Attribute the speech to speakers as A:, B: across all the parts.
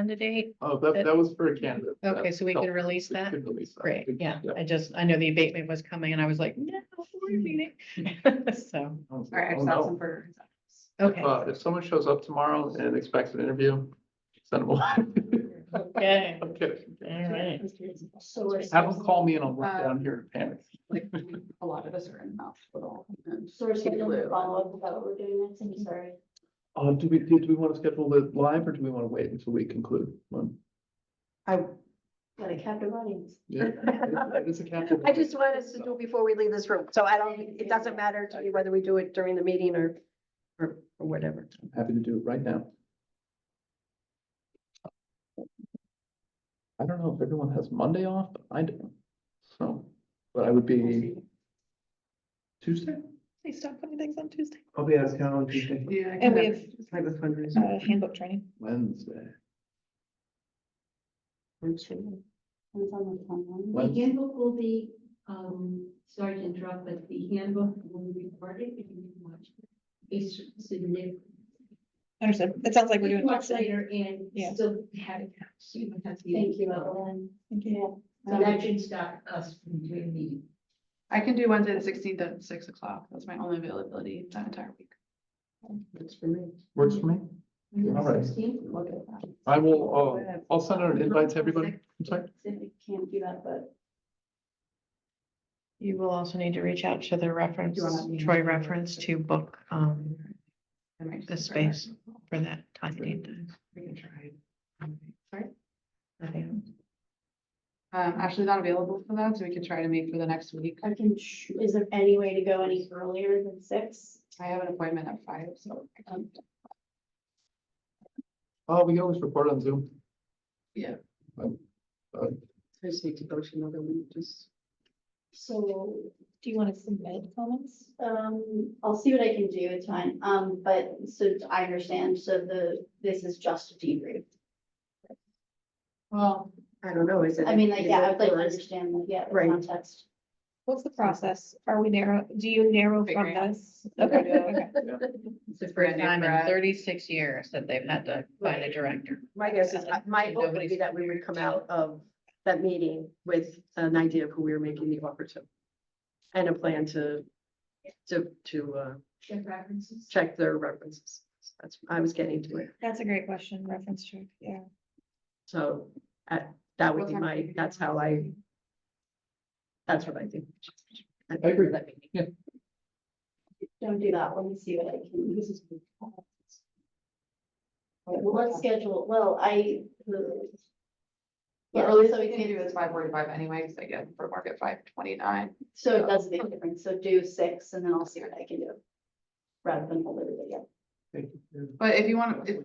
A: candidate?
B: Oh, that, that was for a candidate.
A: Okay, so we
B: No,
A: can release that?
B: could release that.
A: Great, yeah.
B: Yeah.
A: I just, I know the abatement was coming and I was like, no, we're
C: Hmm.
A: meeting. So,
B: Oh,
C: All right,
B: oh,
C: I've
B: no.
C: got some for.
A: okay,
B: Uh, if someone shows up tomorrow and expects an interview, send them one.
A: okay,
B: I'm kidding.
A: all right.
C: So we're
B: Have them call me and I'll work
A: Uh,
B: down here in panic.
C: like, a lot of us are in mouth with all.
D: So we're scheduling a follow-up about what we're doing next, I'm sorry.
B: Uh, do we, do do we want to schedule it live or do we want to wait until we conclude? Um,
C: I,
D: Got a captive audience.
B: Yeah. It's a captive.
C: I just want us to do it before we leave this room, so I don't, it doesn't matter to me whether we do it during the meeting or, or or whatever.
B: I'm Happy to do it right now. I don't know if everyone has Monday off, but I do. So, but I would be Tuesday.
A: Please stop putting things on Tuesday.
E: I'll be out of town on Tuesday.
C: Yeah.
A: And we have
C: Type of fundraiser.
A: uh, handbook training.
B: Wednesday.
D: It's on the timeline.
B: When-
F: The handbook will be, um, sorry to interrupt, but the handbook will be recorded if you can watch. it. It's submitted.
A: Understood. It sounds like
F: Watch later and
A: Yeah.
F: still have it, so you don't have to.
D: Thank you, Evelyn.
F: So that should stop us from doing the.
C: I can do Wednesday the sixteenth at six o'clock, that's my only availability that entire week.
F: That's for me.
B: Works for me. All right.
F: Sixteenth,
D: Look at that.
B: I will, uh, I'll send out an invite to everybody. I'm sorry.
D: If we can't do that, but
A: You will also need to reach out to the reference,
C: You want me to-
A: Troy reference to book, um,
C: I might
A: the
C: just try that.
A: space for that time. date.
C: We can try it.
A: Nothing else?
C: Um, Ashley's not available for that, so we can try to meet for the next week.
D: I can, sh- is there any way to go any earlier than six?
C: I have an appointment at five, so. um,
B: Oh, we can always record on Zoom.
C: Yeah.
B: Um,
C: I just need to go to another week, just.
D: So
G: Do you want to submit comments?
D: Um, I'll see what I can do, it's fine, um, but so I understand, so the, this is just a debrief.
C: Well, I don't know, is it?
D: I mean, like,
C: is
D: yeah,
C: it
D: I'd like to
C: first?
D: understand, like, yeah, the
C: Right.
D: context.
G: What's the process? Are we narrow, do you narrow
C: Figure
G: from
C: it out.
G: this? Okay, okay.
C: It's a
A: First
C: brand new
A: time in
C: grad.
A: thirty-six years that they've had to find a director.
C: My guess is, I- my hope would be
A: Nobody's
C: that we would come out of that meeting with an idea of who we were making the offer to. And a plan to, to, to, uh,
F: check references.
C: check their references. That's, I was getting to it.
G: That's a great question, reference check, yeah.
C: So, uh, that would be my, that's how I, that's what I think.
B: I agree.
C: That meeting.
D: Don't do that, let me see what I can, this is. Well, let's schedule, well, I. the-
H: The
D: Yeah,
H: earliest
D: so
H: we
D: we
H: can do
D: can,
H: is five forty-five anyways, again, for market five twenty-nine.
D: so it does make a difference, so do six and then I'll see what I can do. Rather than hold everybody up.
H: But if you want, if,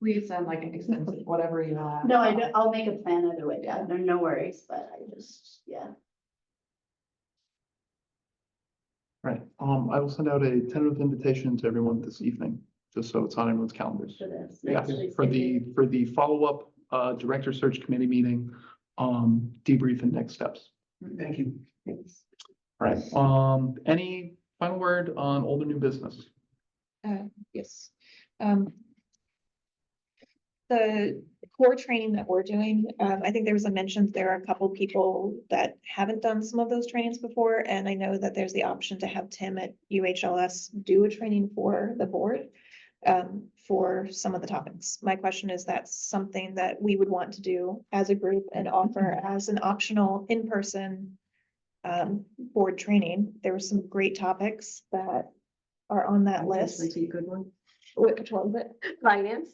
H: please send like an extensive, whatever you want.
D: No, I, don't- I'll make a plan either way, yeah, no, no worries, but I just, yeah.
B: Right, um, I will send out a tentative invitation to everyone this evening, just so it's on everyone's calendars.
D: for this.
B: Yeah,
D: Actually,
B: for the,
D: maybe-
B: for the follow-up, uh, director search committee meeting, um, debrief and next steps.
E: Thank you.
B: All Right, um, any final word on older new business?
G: Yes. Um. The core training that we're doing, um, I think there was a mention, there are a couple people that haven't done some of those trainings before. And I know that there's the option to have Tim at UHLS do a training for the board. Um, for some of the topics. My question is, that's something that we would want to do as a group and offer as an optional in-person. Um, board training. There were some great topics that are on that list.
C: Actually, Good one.
G: Which was it?
C: Finance.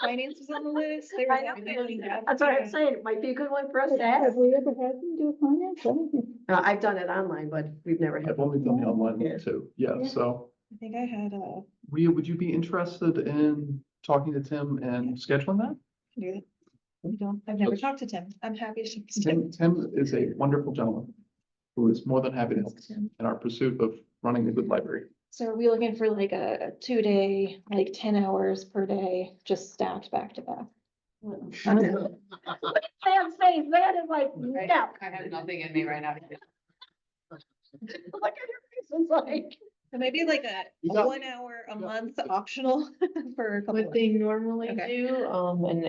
G: Finance was on the list. They were
C: I know.
G: downloading that.
C: That's what I'm saying. It might be a good one for us to
G: Have
C: ask.
G: we ever had them do finance? I don't think-
C: Uh, I've done it online, but we've never had.
B: I've only done the online
C: Yeah.
B: one too, yeah,
G: Yeah.
B: so,
G: I think I had uh, a,
B: Rhea, would you be interested in talking to Tim and scheduling that?
G: do that. We don't, I've never talked to Tim. I'm happy to. talk to Tim.
B: Tim, Tim is a wonderful gentleman who is more than happy to help us in our pursuit of running a good library.
G: So are we looking for like a two day, like ten hours per day, just stacked back to back? I don't know.
D: Sam's face, that is like, no.
H: I have nothing in me right now.
D: Look at your face, it's like,
G: So Maybe like a
B: You got-
G: one hour a month optional for a couple.
A: What they normally
G: Okay.
A: do, um, and